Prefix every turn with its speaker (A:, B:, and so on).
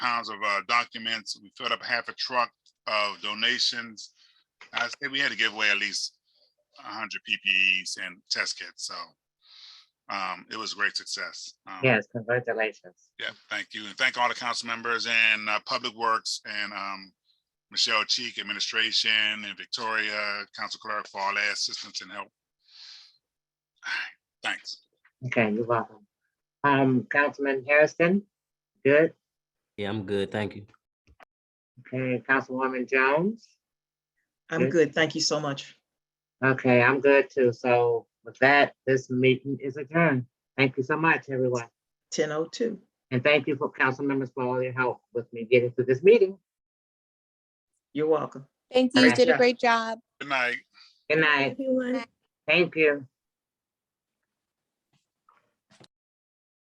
A: pounds of uh, documents. We filled up half a truck of donations. I say we had to give away at least hundred PPEs and test kits, so um, it was a great success. Um,
B: Yes, congratulations.
A: Yeah, thank you. And thank all the council members and uh, Public Works and um, Michelle Cheek Administration and Victoria, Council Clerk for all their assistance and help. Thanks.
B: Okay, you're welcome. Um, Councilman Harrison, good.
C: Yeah, I'm good. Thank you.
B: Okay, Councilwoman Jones.
D: I'm
B: Yes.
D: good. Thank you so much.
B: Okay, I'm good too. So with that, this meeting is adjourned. Thank you so much, everyone.
D: Ten oh two.
B: And thank you for council members for all your help with me getting through this meeting.
D: You're welcome.
E: Thank you. You did a
B: Gotcha.
E: great job.
A: Good night.
B: Good night.
F: Everyone.
B: Thank you.